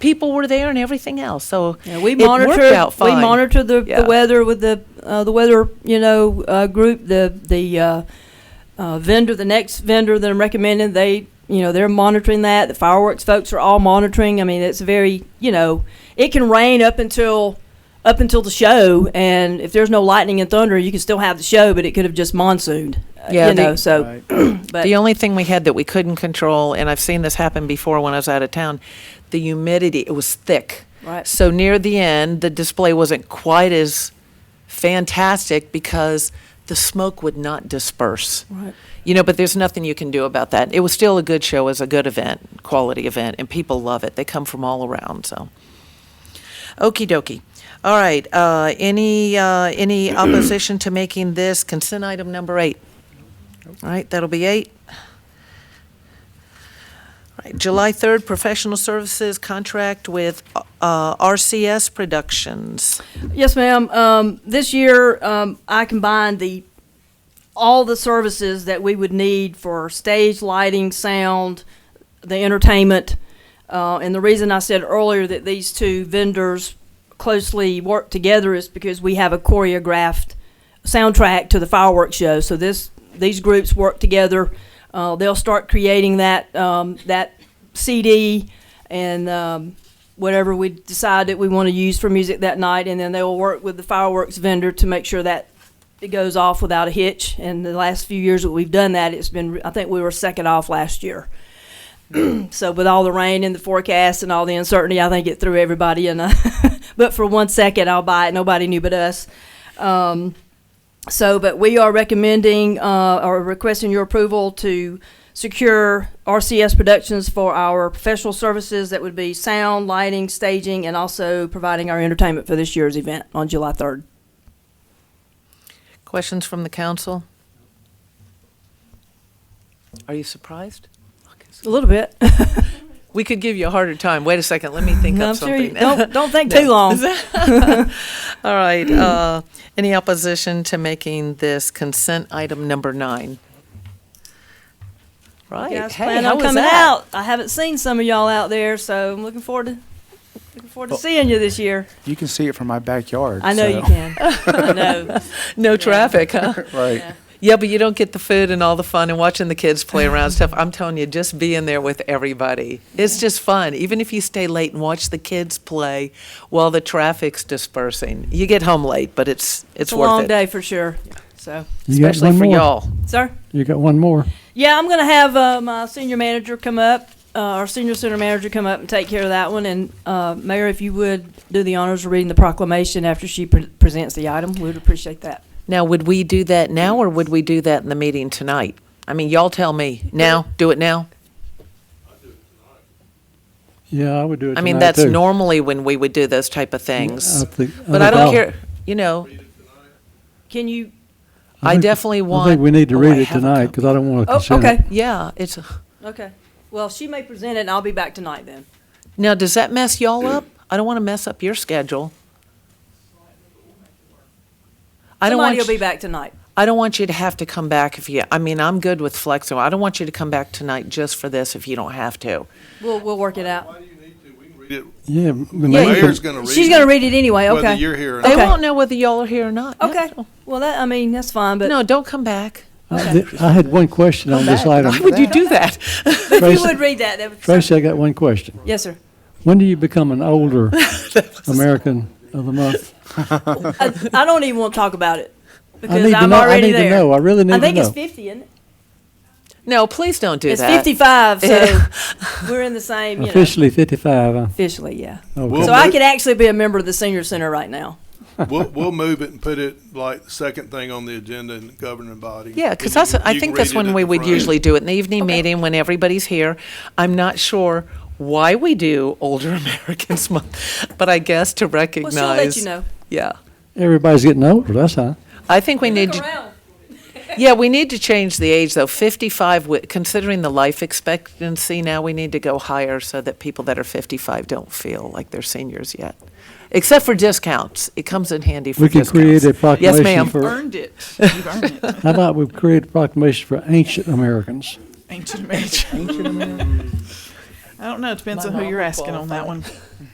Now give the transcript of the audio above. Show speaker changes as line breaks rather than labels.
people were there and everything else. So
Yeah, we
it worked
monitor.
out
We
fine.
monitor the,
Yeah.
the weather with the uh, the weather you know uh, group the the uh, uh, vendor the next vendor that I'm recommending they you know they're monitoring that the fireworks folks are all monitoring. I mean it's very you know it can rain up until up until the show and if there's no lightning and thunder you can still have the show but it could have just monsooned. uh,
Yeah,
you
the-
know so
Right.
but
the only thing we had that we couldn't control, and I've seen this happen before when I was out of town, the humidity. It was thick.
Right.
So near the end, the display wasn't quite as fantastic because the smoke would not disperse.
Right.
You know, but there's nothing you can do about that. It was still a good show, it was a good event, quality event, and people love it. They come from all around. So, okie dokie. All right. Uh, any uh, any opposition to making this consent item number eight? All right, that'll be eight. All right, July 3rd, professional services contract with uh, RCS Productions.
Yes, ma'am. Um, this year, um, I combined the all the services that we would need for stage lighting, sound, the entertainment, uh, and the reason I said earlier that these two vendors closely work together is because we have a choreographed soundtrack to the fireworks show. So this these groups work together. Uh, they'll start creating that um, that CD and um, whatever we decide that we want to use for music that night, and then they will work with the fireworks vendor to make sure that it goes off without a hitch. And the last few years that we've done that, it's been I think we were second off last year. so with all the rain and the forecast and all the uncertainty, I think it threw everybody in. A but for one second, I'll buy it. Nobody knew but us. Um, so, but we are recommending uh, or requesting your approval to secure RCS Productions for our professional services that would be sound, lighting, staging, and also providing our entertainment for this year's event on July 3rd.
Questions from the council? Are you surprised?
A little bit.
We could give you a harder time. Wait a second, let me think
I'm
up
sure you,
something.
don't, don't think too long.
All right, uh, any opposition to making this consent item number nine? Right.
guys
hey,
plan
how
on
was
coming
that?
out. I haven't seen some of y'all out there, so I'm looking forward to looking forward to
Well-
seeing you this year.
You can see it from my backyard.
I know you
so-
can. I know.
No traffic, huh?
Right.
Yeah, but you don't get the food and all the fun and watching the kids play around and stuff. I'm telling you, just being there with everybody. It's just fun. Even if you stay late and watch the kids play while the traffic's dispersing. You get home late, but it's it's,
It's a
worth
long
it.
day for sure. So,
You got
Especially
one
for
more.
y'all.
sir.
You got one more.
Yeah, I'm gonna have uh, my senior manager come up, uh, our senior center manager come up and take care of that one. And uh, Mayor, if you would do the honors of reading the proclamation after she pre- presents the item, we would appreciate that.
Now, would we do that now or would we do that in the meeting tonight? I mean, y'all tell me. Now? Do it now?
Yeah, I would do it.
I mean,
tonight,
that's
too.
normally when we would do those type of things.
I think- I
But I
think
don't
I'll-
care, you know,
Can you?
I
think-
definitely
I
want.
think we need to
Oh, I
read it
have a
tonight
copy.
because I don't want to
Oh,
consider.
okay,
Yeah, it's,
okay. Well, she may present it, and I'll be back tonight then.
now, does that mess y'all up? I don't want to mess up your schedule. I don't want,
Somebody will be
you-
back tonight.
I don't want you to have to come back if you, I mean, I'm good with flexible. I don't want you to come back tonight just for this if you don't have to.
We'll we'll work it out.
Why do you need to? We can read it.
Yeah, the
Yeah,
mayor
Mayor's
can-
gonna read it.
She's gonna read it anyway.
Whether
Okay.
you're here or
They
not.
Okay.
won't know whether y'all are here or not.
Okay. Well, that I mean that's fine, but
No, don't come back.
I did- I had one question on this
Why
item.
would you do that?
if you
Tracy-
would read that, that would.
Tracy, I got one question.
Yes, sir.
When do you become an older American of the month?
I, I don't even want to talk about it because
I need to
am
know. I
already
need
there.
to know. I really need
I
to know.
think it's 50, isn't it?
No, please don't do
It's
that.
55, so
Yeah.
we're in the same, you know,
Officially 55. huh?
officially, yeah.
Okay.
Well-
So I
move-
could actually be a member of the senior center right now.
We'll, we'll move it and put it like second thing on the agenda in the governing body.
Yeah, because
And
that's,
you-
I
you
think
can
that's
read it
when
at
we
the
would
front.
usually do it, in the evening meeting when everybody's here. I'm not sure why we do Older Americans Month, but I guess to
Well,
recognize.
she'll let you know.
Yeah.
Everybody's getting older. That's how.
I think we need, to. yeah, we need to change the age, though. 55, wi- considering the life expectancy now, we need to go higher so that people that are 55 don't feel like they're seniors yet. Except for discounts. It comes in handy for
We can
discounts.
create a
Yes,
proclamation
ma'am.
for.
Earned it. You've earned it.
How about we create a proclamation for ancient Americans?
Ancient American. I don't know. It depends
My
on who
mom
you're
would
asking on that
qualify.
one.